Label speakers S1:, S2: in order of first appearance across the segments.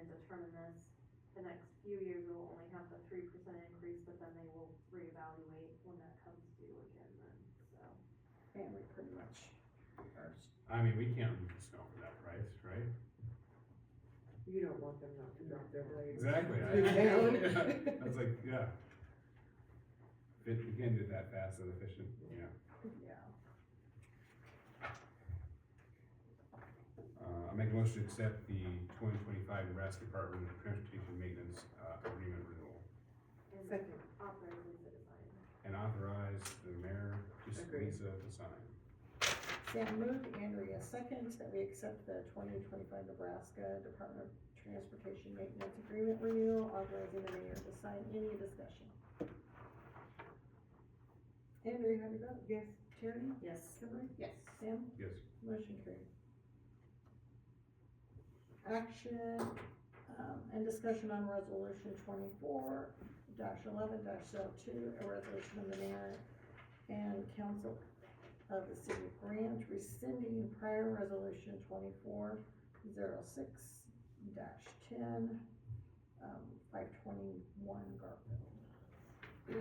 S1: term in this, the next few years we will only have the three percent increase, but then they will reevaluate when that comes due again then, so.
S2: And we pretty much are,
S3: I mean, we can't discover that price, right?
S4: You don't want them not to drop their blades.
S3: Exactly. I-
S4: Down.
S3: I was like, yeah. If it- you can't do it that fast and efficient, yeah.
S2: yeah.
S3: Uh, I make a motion to accept the twenty twenty-five Nebraska Department of Transportation Maintenance, uh, agreement renewal.
S1: and
S4: Second,
S1: Operate Lisa Design.
S3: And authorize the mayor, just
S4: Agreed.
S3: Lisa, to sign.
S2: Sam moved, Andrea seconds, that we accept the twenty twenty-five Nebraska Department of Transportation Maintenance Agreement renewal, authorizing the mayor to sign any discussion. Andrea, how do you vote?
S4: yes,
S2: Terry?
S1: Yes.
S2: Kimberly? Yes. Sam?
S3: Yes.
S2: Motion carried. Action, um, and discussion on resolution twenty-four dash eleven dash oh two, a resolution of the mayor and council of the city of Grant rescinding prior resolution twenty-four zero six dash ten, um, five twenty-one Garfield.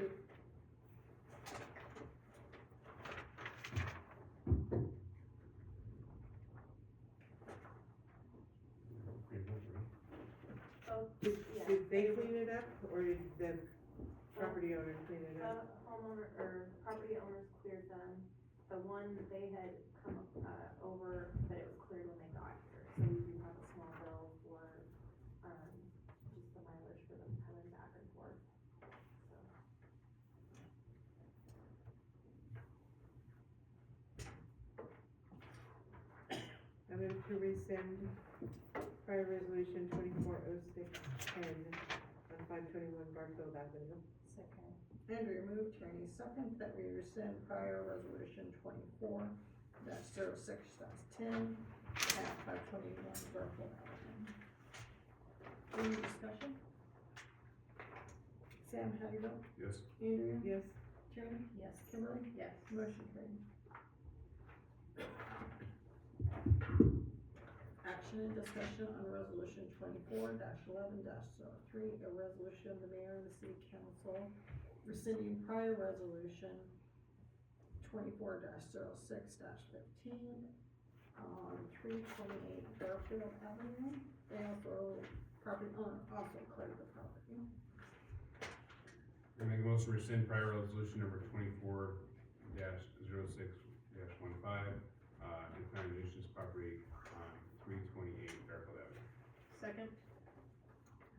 S3: Great vote, right?
S1: Both,
S4: did,
S1: yeah,
S4: did they clean it up, or did the property owner clean it up?
S1: Uh, homeowner, or property owners cleared them, the one that they had come, uh, over, but it was cleared when they got here, so we do have a small bill for, um, just the mileage for them coming back and forth, so.
S2: Uh,
S4: I move to rescind prior resolution twenty-four oh six ten on five twenty-one Garfield Avenue.
S2: Second. Andrea moved, Tierney second, that we rescind prior resolution twenty-four dash zero six dash ten at five twenty-one Garfield Avenue. Any discussion? Sam, how do you vote?
S3: Yes.
S2: Andrea?
S4: Yes,
S2: Tierney? Yes. Kimberly? Yes. Motion carried. Action and discussion on resolution twenty-four eleven 3 a resolution of the mayor and the city council rescinding prior resolution twenty-four 6 fifteen on three twenty-eight Garfield Avenue. They also, property owner also cleared the property.
S3: I make a motion to rescind prior resolution number twenty-four dash zero six dash one five, uh, declaring nuisance property on three twenty-eight Fairfield Avenue.
S2: Second.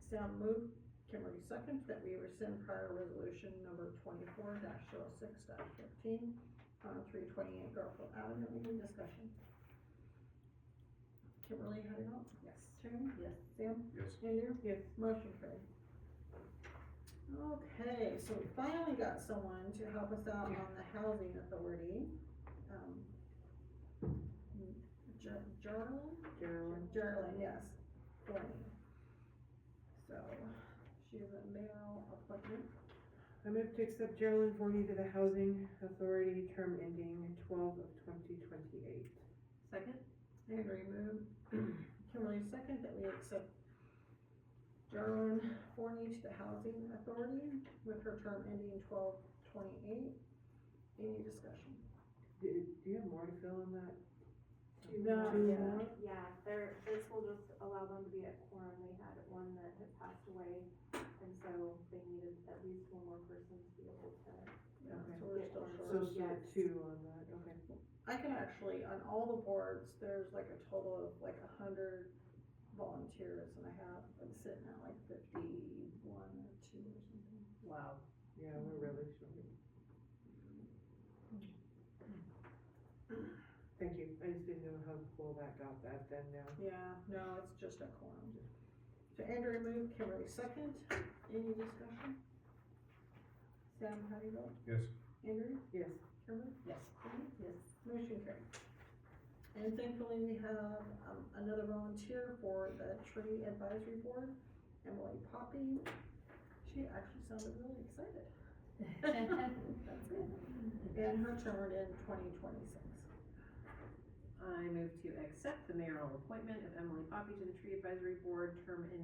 S2: Sam moved, Kimberly second, that we rescind prior resolution number twenty-four dash oh six dash fifteen on three twenty-eight Garfield Avenue, any discussion? Kimberly, how do you vote? Yes. Terry? Yes. Sam?
S3: Yes.
S2: Andrew?
S4: yes,
S2: Motion carried. Okay, so we finally got someone to help us out on the housing authority. Um, Ger- Gerald?
S4: Gerald,
S2: Gerlin, yes, Thorny. So, she's a mayoral appointment.
S4: I move to accept Geraldine Forney to the Housing Authority, term ending twelve of twenty twenty-eight.
S2: Second. Andrew moved, Kimberly second, that we accept Gerlin Forney to the Housing Authority with her term ending twelve twenty-eight. Any discussion?
S4: Do, do you have more to fill on that?
S2: No,
S4: Two
S2: yeah.
S4: more?
S1: Yeah, they're, this will just allow them to be at quorum, they had one that had passed away, and so they needed at least one more person to be able to.
S2: Yeah,
S4: Okay.
S2: so we're still
S1: Yeah.
S4: So,
S2: short.
S4: so two on that, okay.
S2: I can actually, on all the boards, there's like a total of like a hundred volunteers and I have, I'm sitting at like fifty-one or two or something.
S4: Wow. Yeah, we're really short. Thank you, I just didn't know how full that got that then now.
S2: Yeah, no, it's just a quorum. So Andrea moved, Kimberly second, any discussion? Sam, how do you vote?
S3: Yes.
S2: Andrew?
S4: Yes,
S2: Kimberly? Yes. Yes. Motion carried. And thankfully, we have, um, another volunteer for the tree advisory board, Emily Poppy. She actually sounded really excited. That's good. And her term would end twenty twenty-six.
S5: I move to accept the mayoral appointment of Emily Poppy to the Tree Advisory Board, term ending